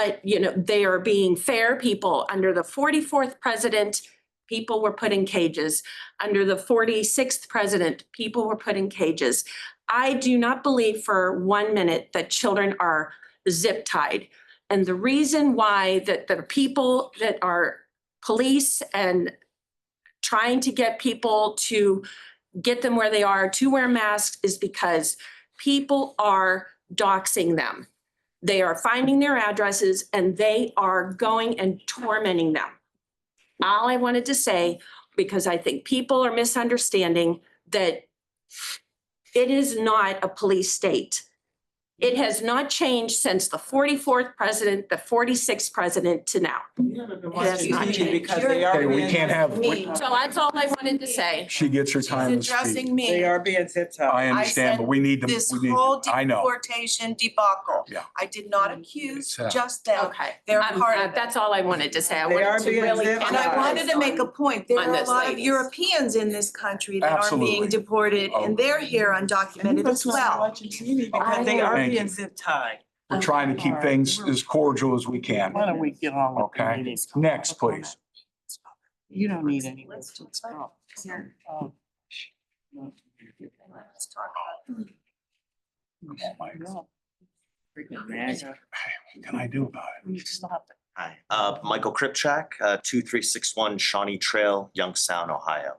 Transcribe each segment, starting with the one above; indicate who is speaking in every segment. Speaker 1: But, you know, they are being fair people. Under the forty-fourth president, people were put in cages. Under the forty-sixth president, people were put in cages. I do not believe for one minute that children are zip tied. And the reason why that the people that are police and trying to get people to get them where they are to wear masks is because people are doxing them. They are finding their addresses and they are going and tormenting them. All I wanted to say, because I think people are misunderstanding that it is not a police state. It has not changed since the forty-fourth president, the forty-sixth president to now.
Speaker 2: That's
Speaker 1: not changed.
Speaker 2: Because they
Speaker 3: Okay,
Speaker 2: are
Speaker 3: we
Speaker 2: being,
Speaker 3: can't have,
Speaker 4: Me.
Speaker 3: we-
Speaker 1: So that's all I wanted to say.
Speaker 3: she gets her time to
Speaker 4: She's
Speaker 3: speak.
Speaker 4: addressing
Speaker 2: they
Speaker 4: me.
Speaker 2: are being zip
Speaker 3: I
Speaker 2: tied.
Speaker 3: understand,
Speaker 4: said
Speaker 3: but we need to,
Speaker 4: This
Speaker 3: we need,
Speaker 4: whole
Speaker 3: I know.
Speaker 4: deportation debacle.
Speaker 3: Yeah.
Speaker 4: I did not accuse
Speaker 3: It's, uh,
Speaker 4: just them.
Speaker 1: Okay.
Speaker 4: They're
Speaker 1: I'm-
Speaker 4: part
Speaker 1: uh,
Speaker 4: of it.
Speaker 1: That's all I wanted to say. I
Speaker 2: They are
Speaker 1: wanted to
Speaker 2: being
Speaker 1: really.
Speaker 2: zip
Speaker 4: And I wanted to make a point. There
Speaker 1: On
Speaker 4: are a
Speaker 1: this,
Speaker 4: lot of
Speaker 1: ladies.
Speaker 4: Europeans in this country that are
Speaker 3: Absolutely. Oh.
Speaker 4: being deported and they're here undocumented as well.
Speaker 2: Because they are
Speaker 3: Thank
Speaker 2: being
Speaker 3: you.
Speaker 2: zip tied.
Speaker 3: We're trying to keep things as cordial as we can.
Speaker 2: Why don't we get on with the
Speaker 3: Okay.
Speaker 2: meetings?
Speaker 3: Next, please.
Speaker 2: You don't need any. more
Speaker 4: Let's
Speaker 2: to
Speaker 4: talk
Speaker 2: talk.
Speaker 4: Here,
Speaker 2: Oh,
Speaker 4: let's talk about it.
Speaker 2: no. Freaking MAGA.
Speaker 3: What can I do about
Speaker 2: We need to stop it.
Speaker 5: Hi, uh, Michael Kripchak, uh, two three six one Shawnee Trail, Youngstown, Ohio.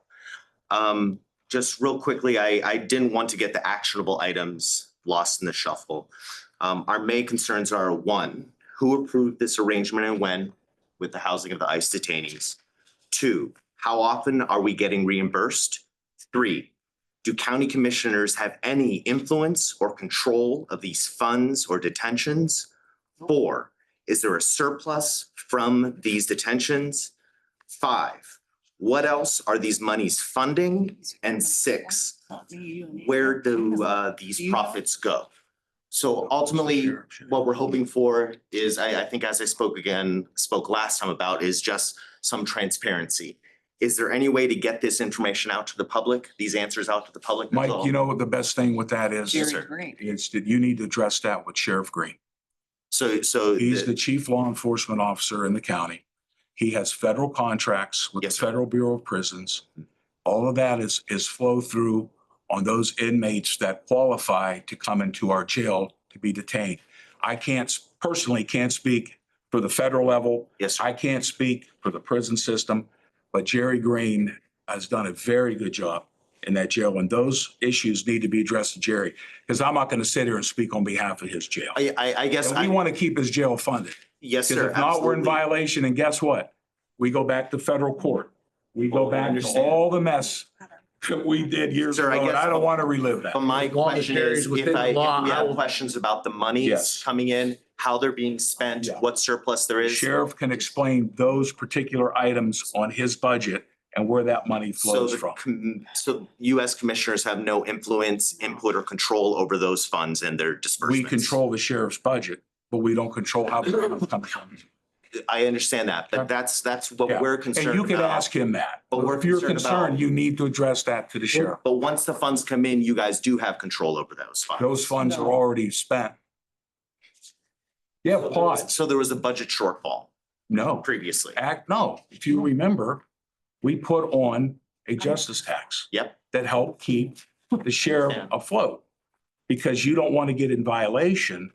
Speaker 5: Um, just real quickly, I, I didn't want to get the actionable items lost in the shuffle. Um, our main concerns are, one, who approved this arrangement and when with the housing of the ICE detainees? Two, how often are we getting reimbursed? Three, do county commissioners have any influence or control of these funds or detentions? Four, is there a surplus from these detentions? Five, what else are these monies funding? And six,
Speaker 2: Not me, you and me.
Speaker 5: where do uh these profits go? So ultimately, what we're hoping for is, I I think as I spoke again, spoke last time about, is just some transparency. Is there any way to get this information out to the public, these answers out to the public?
Speaker 3: it? Mike, you know what the best thing with that is?
Speaker 2: Jerry Green.
Speaker 3: Is that you need to address that with Sheriff Green.
Speaker 5: So so.
Speaker 3: He's
Speaker 5: the-
Speaker 3: the chief law enforcement officer in the county. He has federal contracts with the
Speaker 5: Yes, sir.
Speaker 3: Federal Bureau of Prisons. All of that is, is flow through on those inmates that qualify to come into our jail to be detained. I can't, s- personally can't speak for the federal level.
Speaker 5: Yes, sir.
Speaker 3: I can't speak for the prison system, but Jerry Green has done a very good job in that jail. And those issues need to be addressed to Jerry, because I'm not going to sit here and speak on behalf of his jail.
Speaker 5: I I I guess
Speaker 3: And we
Speaker 5: I,
Speaker 3: want to keep his jail funded.
Speaker 5: yes,
Speaker 3: Because
Speaker 5: sir.
Speaker 3: if not, we're in
Speaker 5: absolutely.
Speaker 3: violation, and guess what? We go back to federal court. We go
Speaker 5: Oh, I
Speaker 3: back to
Speaker 5: understand.
Speaker 3: all the mess that we did years
Speaker 5: Sir, I
Speaker 3: ago, and
Speaker 5: guess-
Speaker 3: I don't want to relive that.
Speaker 5: But my
Speaker 6: As long as
Speaker 5: question
Speaker 6: there
Speaker 5: is,
Speaker 6: is
Speaker 5: if
Speaker 6: within
Speaker 5: I,
Speaker 6: the
Speaker 5: if
Speaker 6: law,
Speaker 5: we
Speaker 6: I
Speaker 5: have
Speaker 6: will-
Speaker 5: questions about the monies
Speaker 3: Yes.
Speaker 5: coming in, how they're being spent,
Speaker 3: Yeah.
Speaker 5: what surplus there
Speaker 3: The
Speaker 5: is.
Speaker 3: Sheriff can explain those particular items on his budget and where that money
Speaker 5: So
Speaker 3: flows
Speaker 5: the,
Speaker 3: from.
Speaker 5: com- so US commissioners have no influence, input or control over those funds and their
Speaker 3: We
Speaker 5: disbursements.
Speaker 3: control the sheriff's budget, but we don't control how the money comes from.
Speaker 5: I understand that,
Speaker 3: Yeah.
Speaker 5: but that's, that's
Speaker 3: Yeah.
Speaker 5: what we're
Speaker 3: And
Speaker 5: concerned about.
Speaker 3: you could ask him that.
Speaker 5: But we're
Speaker 3: If you're
Speaker 5: concerned about-
Speaker 3: concerned, you need to address that to the sheriff.
Speaker 5: But once the funds come in, you guys do have control over those funds.
Speaker 3: Those funds are
Speaker 2: No.
Speaker 3: already spent. Yeah, pause.
Speaker 5: So there was a budget shortfall
Speaker 3: No.
Speaker 5: previously.
Speaker 3: act, no, if you remember, we put on a justice tax.
Speaker 5: Yep.
Speaker 3: That helped keep the sheriff
Speaker 5: Yeah.
Speaker 3: afloat. Because you don't want to get in violation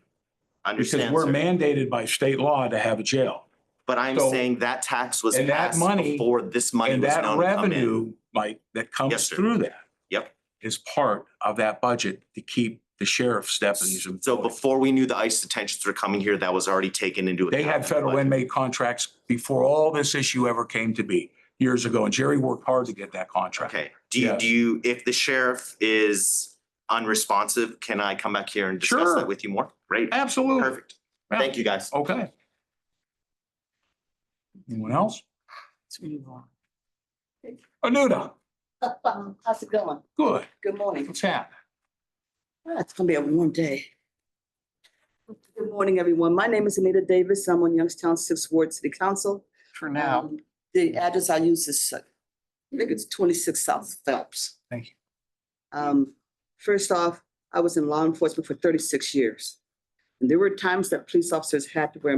Speaker 3: because
Speaker 5: Understand,
Speaker 3: we're
Speaker 5: sir.
Speaker 3: mandated by state law to have a jail.
Speaker 5: But I'm
Speaker 3: so-
Speaker 5: saying that tax was
Speaker 3: and that
Speaker 5: passed
Speaker 3: money-
Speaker 5: before this money
Speaker 3: And
Speaker 5: was
Speaker 3: that
Speaker 5: known to come in.
Speaker 3: revenue, Mike, that comes
Speaker 5: Yes, sir.
Speaker 3: through that.
Speaker 5: Yep.
Speaker 3: Is part of that budget to keep the sheriff's deputies.
Speaker 5: So
Speaker 3: employed.
Speaker 5: before we knew the ICE detentions were coming here, that was already taken into account.
Speaker 3: They had federal inmate contracts before all this issue ever came to be years ago, and Jerry worked hard to get that contract.
Speaker 5: Okay, do you,
Speaker 3: Yes.
Speaker 5: do you, if the sheriff is unresponsive, can I come back here and discuss
Speaker 3: Sure.
Speaker 5: that with you more? Great,
Speaker 3: Absolutely.
Speaker 5: perfect. Thank you, guys.
Speaker 3: Okay. Anyone else?
Speaker 2: Let's move
Speaker 5: uh,
Speaker 2: on.
Speaker 3: Anuda,
Speaker 7: Um, How's it going?
Speaker 3: good.
Speaker 7: Good morning.
Speaker 3: What's happening?
Speaker 7: Ah, It's gonna be a warm day. Good morning, everyone. My name is Anita Davis. I'm on Youngstown Sixth Ward City Council.
Speaker 2: For now.
Speaker 7: Um, The address I use is, uh, I think it's twenty-six South Phelps.
Speaker 3: Thank
Speaker 7: you. Um, first off, I was in law enforcement for thirty-six years. And there were times that police officers had to wear